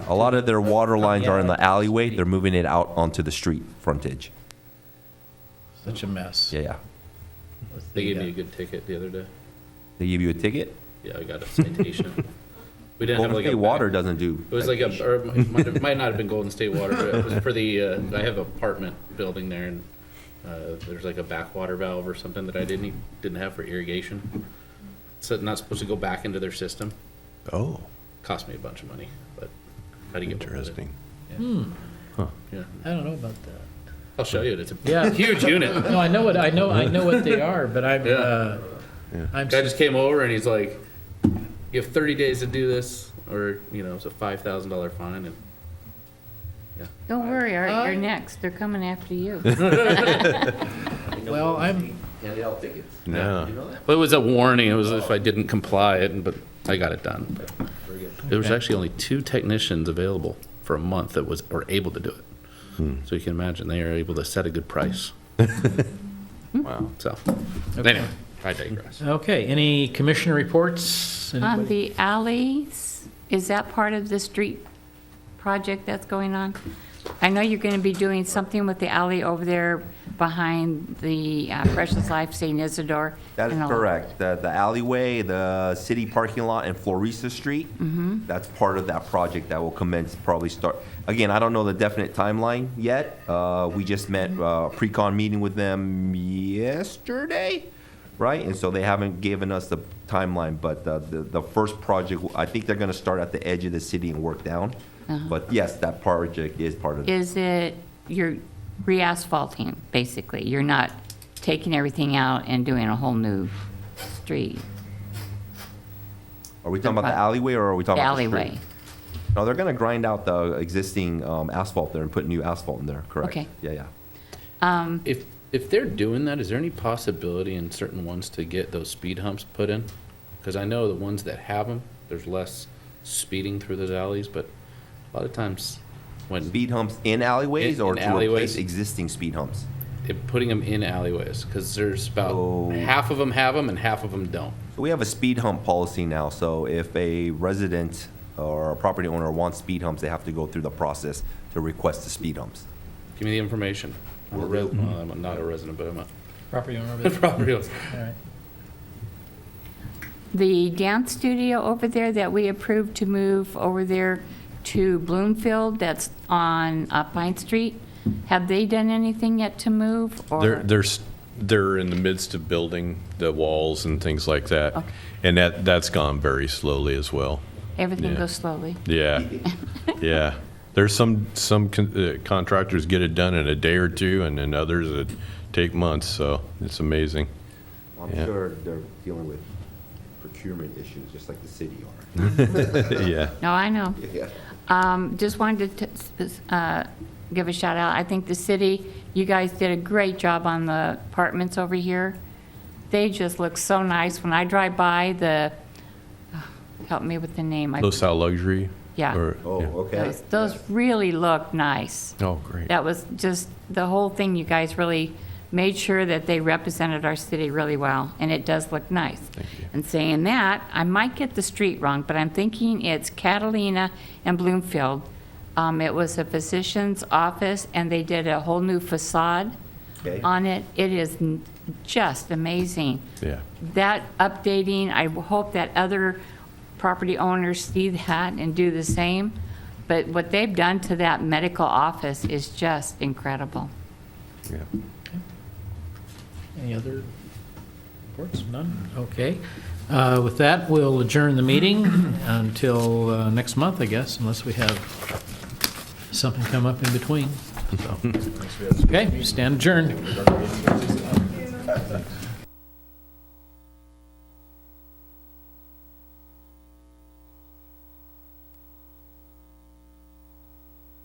A lot of their water lines are in the alleyway. They're moving it out onto the street frontage. Such a mess. Yeah, yeah. With They the, gave me a uh, good ticket the other day. They give you a ticket. Yeah, I got a citation. We didn't have Golden like State a. Water doesn't do. It was like a, or it might it might not have been Golden State Water, but it was for the, uh, I have an apartment building there and, uh, there's like a backwater valve or something that I didn't, e, didn't have for irrigation. So not supposed to go back into their system. Oh, Cost me a bunch of money, but how do you get rid of it? interesting. Yeah, I don't know about that. I'll show you. it. It's Yeah. a huge unit. No, I know what, I know, I know what they are, but I'm, Yeah. uh, I'm, Guy just came over and he's like, "You have 30 days to do this, or you know, it's a five thousand dollar fine." And Don't worry, Art, Oh. you're next. They're coming after you. well, I'm, handed out tickets. No. You know that? well, it was a warning. It was if I didn't comply, it but I got it done. But Very good. there was Okay. actually only two technicians available for a month that was were able to do it. So you can imagine they are able to set a good price. wow. So anyway, I digress. okay, any commissioner reports? On Anybody? Um, the alleys, is that part of the street project that's going on? I know you're going to be doing something with the alley over there behind the uh, Precious Life St. Isidore. That is and all- correct. The, the alleyway, the city parking lot, and Florissa Street. Mm-hmm. That's part of that project that will commence probably start. Again, I don't know the definite timeline yet. Uh, we just met Mm-hmm. uh, pre-con meeting with them yesterday, right? And so they haven't given us the timeline, but the the, the first project, I think they're going to start at the edge of the city and work down. But yes, that project is part of. Uh-huh. Is it, you're re-asphalting, basically? You're not taking everything out and doing a whole new street, Are we talking about the alleyway or are we the talking about the street? alleyway? No, they're gonna grind out the existing um, asphalt there and put new asphalt in there, correct? Okay. Yeah, yeah. If if they're doing that, is there any possibility in certain ones to get those speed humps put in? Because I know the ones that have them, there's less speeding through those alleys, but a lot of times when Speed humps in alleyways In- or in to replace alleyways. existing speed humps? they're putting them in alleyways, because there's about Oh. half of them have them and half of them don't. We have a speed hump policy now, so if a resident or a property owner wants speed humps, they have to go through the process to request the speed humps. Give me the information. I'm a res- well, I'm not a resident, but I'm a Property owner, but- property owner. all right. The dance studio over there that we approved to move over there to Bloomfield, that's on uh, Pine Street, have they done anything yet to move? or- They're, they're, s- they're in the midst of building the walls and things like that. Okay. And that, that's gone very slowly as well. Everything yeah. goes slowly. Yeah, yeah. There's some, some con- uh, contractors get it done in a day or two, and then others that take months, so it's amazing. I'm Yeah. sure they're dealing with procurement issues, just like the city are. Yeah. No, I know. Yeah. Um, Just wanted to t- s- uh, give a shout out. I think the city, you guys did a great job on the apartments over here. They just look so nice. When I drive by, the, help me with the name. I- Los Al Luxury? Yeah. or- Oh, yeah. okay. Those those really look nice. Oh, great. That was just, the whole thing, you guys really made sure that they represented our city really well, and it does look nice. you. And saying that, I might get the street wrong, but I'm thinking it's Catalina and Bloomfield. Um, It was a physician's office, and they did a whole new facade Okay. on it. It is n- just amazing Yeah. that updating, I hope that other property owners see that and do the same. But what they've done to that medical office is just incredible. Yeah. Any other reports? None? Okay. Uh, With that, we'll adjourn the meeting until uh, next month, I guess, unless we have something come up in between. So, Okay, stand adjourned.